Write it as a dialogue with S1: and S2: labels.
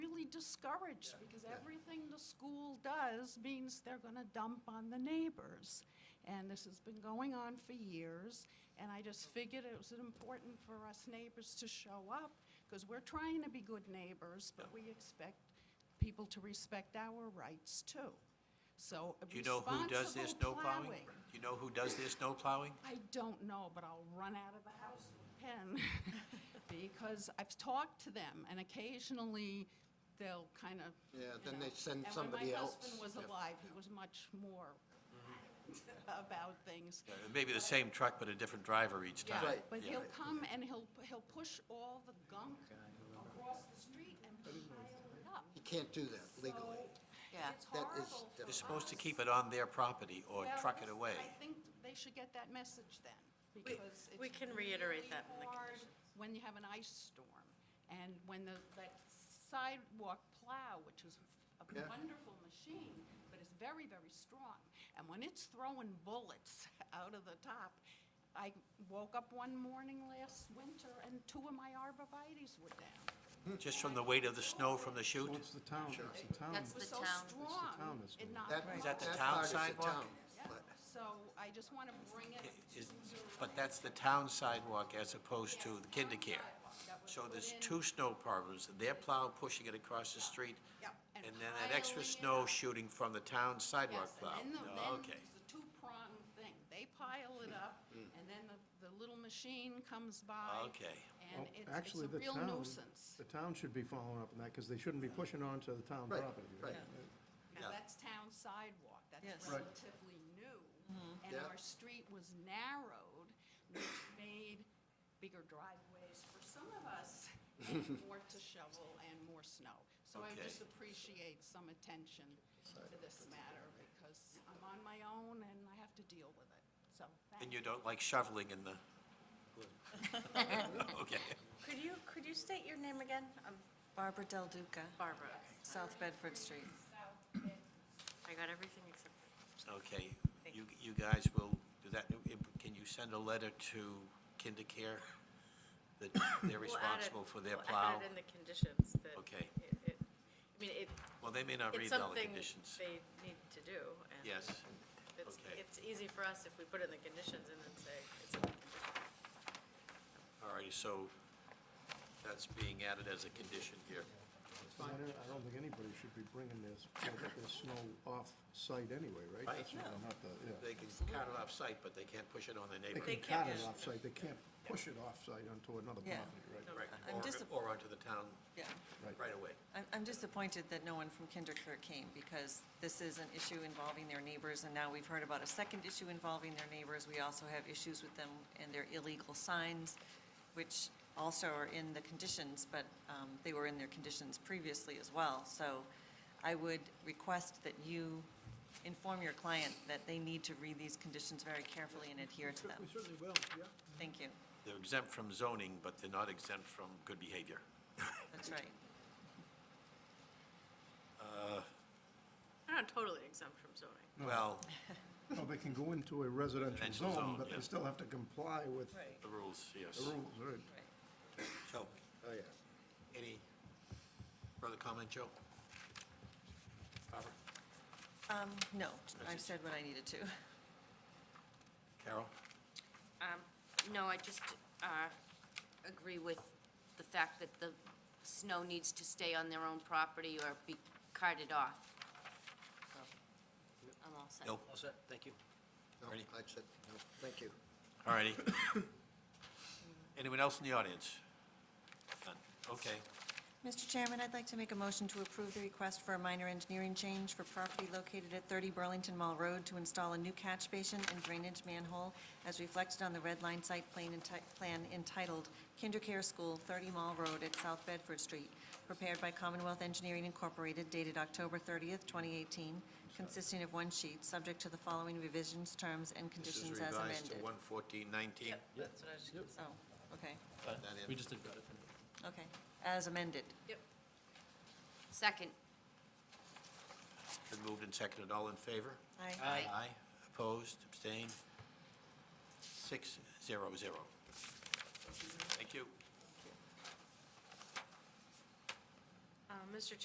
S1: discouraged because everything the school does means they're going to dump on the neighbors. And this has been going on for years, and I just figured it was important for us neighbors to show up because we're trying to be good neighbors, but we expect people to respect our rights too. So uh,
S2: Do you know who does their
S1: responsible
S2: snow plowing?
S1: plowing.
S2: Do you know who does their snow plowing?
S1: I don't know, but I'll run out of the house with a pen, because I've talked to them, and occasionally, they'll kind of,
S3: Yeah, then they send somebody
S1: And when
S3: else.
S1: my husband was alive, he was much more about things.
S2: Uh, Maybe the same truck, but a different driver each
S1: Yeah,
S2: time.
S3: Right.
S1: But he'll
S2: yeah.
S1: come and he'll, he'll push all the gunk across the street and pile it up.
S3: You can't do that legally.
S1: So, uh,
S4: Yeah.
S1: It's
S3: That is
S1: horrible.
S2: They're supposed to keep it on their property or
S1: Well,
S2: truck it away.
S1: I think they should get that message then, because it's.
S4: we can reiterate
S1: really
S4: that in the
S1: hard
S4: conditions.
S1: When you have an ice storm, and when the, that sidewalk plow, which is a
S3: Yeah.
S1: wonderful machine, but it's very, very strong, and when it's throwing bullets out of the top, I woke up one morning last winter and two of my arborvitae's were down.
S2: Just from the weight of the snow from the
S5: Well,
S2: chute?
S5: it's the town, it's the town.
S4: That's
S1: It was
S4: The
S1: so
S4: town. It's the
S1: strong,
S5: town that's
S1: it
S5: doing it.
S1: knocked.
S3: That-
S1: my
S2: Is that the
S1: whole-
S3: that
S2: town
S3: part is the
S2: sidewalk?
S3: town,
S1: Yeah,
S3: but-
S1: so I just want to bring it to
S2: Is-
S1: your
S2: But that's the town sidewalk as opposed to the kinder care.
S1: That was
S2: So
S1: put
S2: there's
S1: in-
S2: two snow problems, their plow pushing it across the street,
S1: Yep,
S2: and
S1: and
S2: then that extra
S1: piling it
S2: snow
S1: up.
S2: shooting from the town sidewalk
S1: Yes,
S2: plow.
S1: and then the-
S2: No,
S1: then
S2: Okay.
S1: It's a two-pronged thing. They pile it up, and then the, the little machine comes by.
S2: Hmm. Okay.
S1: And
S5: Well,
S1: it's, it's
S5: Oh, actually,
S1: a
S5: the
S1: real
S5: town-
S1: nuisance.
S5: The town should be following up on that, because they shouldn't be pushing on to the town
S3: Right,
S5: property.
S3: right.
S1: Now, that's town sidewalk. That's
S4: Yes.
S5: Right.
S1: relatively new.
S5: Mm-hmm.
S1: And
S3: Yeah.
S1: our street was narrowed, which made bigger driveways for some of us, and more to shovel and more snow. So I
S2: Okay.
S1: just appreciate some attention to this matter, because I'm on my own and I have to deal with it, so. thank
S2: And you don't like shoveling in the... Okay.
S4: Could you, could you state your name again? Um,
S6: Barbara Del Duca,
S4: Barbara.
S6: South Bedford Street.
S4: I got everything except for.
S2: Okay,
S4: Thank
S2: you, you guys will do that, can you send a letter to KinderCare that they're
S4: We'll add it-
S2: responsible for their
S4: we'll
S2: plow?
S4: add it in the conditions that.
S2: Okay.
S4: it- it- I mean, it,
S2: Well, they may not
S4: it's
S2: read all the
S4: something
S2: conditions.
S4: they need to do. and
S2: Yes,
S4: It's,
S2: okay.
S4: it's easy for us if we put it in the conditions and then say, it's in the conditions.
S2: all righty, so that's being added as a condition here.
S5: I don't- I don't think anybody should be bringing this, their snow off-site anyway, right?
S2: Right.
S5: That's not- not the- yeah.
S2: They can cut it off-site, but they can't push it on their neighbor.
S5: They
S4: can't
S5: can cut it
S4: just-
S5: off-site, they can't push it off-site onto another
S6: Yeah.
S5: property, right?
S2: Right,
S6: I'm
S2: or-
S6: disap-
S2: Or onto the town
S6: Yeah.
S5: Right.
S2: right away.
S6: I'm, I'm disappointed that no one from Kinderkirk came because this is an issue involving their neighbors and now we've heard about a second issue involving their neighbors. We also have issues with them and their illegal signs, which also are in the conditions, but, um, they were in their conditions previously as well. So I would request that you inform your client that they need to read these conditions very carefully and adhere to them.
S5: certainly will, yeah.
S6: Thank you.
S2: They're exempt from zoning, but they're not exempt from good behavior.
S6: That's right.
S4: They're not totally exempt from zoning.
S2: Well,
S5: No, they can go into a residential
S2: Residential zone,
S5: zone, but
S2: yeah.
S5: they still have to comply with the
S2: the rules, yes.
S5: rules, right?
S6: Right.
S2: So,
S3: Oh, yeah.
S2: any further comment, Joe? Barbara?
S6: No,
S2: Message.
S6: I've said what I needed to.
S2: Carol?
S7: No, I just uh, agree with the fact that the snow needs to stay on their own property or be carted off. So, I'm all set.
S2: No.
S8: All set, thank you.
S3: No,
S2: Ready?
S3: I said, no, thank you.
S2: All righty. Anyone else in the audience? None. Okay.
S6: Mr. Chairman, I'd like to make a motion to approve the request for a minor engineering change for property located at 30 Burlington Mall Road to install a new catch basin and drainage manhole as reflected on the red line site plan enti- plan entitled KinderCare School, 30 Mall Road at South Bedford Street, prepared by Commonwealth Engineering Incorporated dated October 30th, 2018, consisting of one sheet, subject to the following revisions, terms, and conditions as
S2: This is revised to
S6: amended.
S2: one fourteen nineteen.
S4: That's what I was gonna say.
S6: Oh, okay,
S8: We just did better.
S6: okay, as amended.
S4: Yep.
S7: Second,
S2: Been moved and seconded. All in favor?
S6: Aye.
S8: Aye.
S2: Aye. Opposed, abstained? Six, zero, zero. Thank you.
S4: Uh, Mr.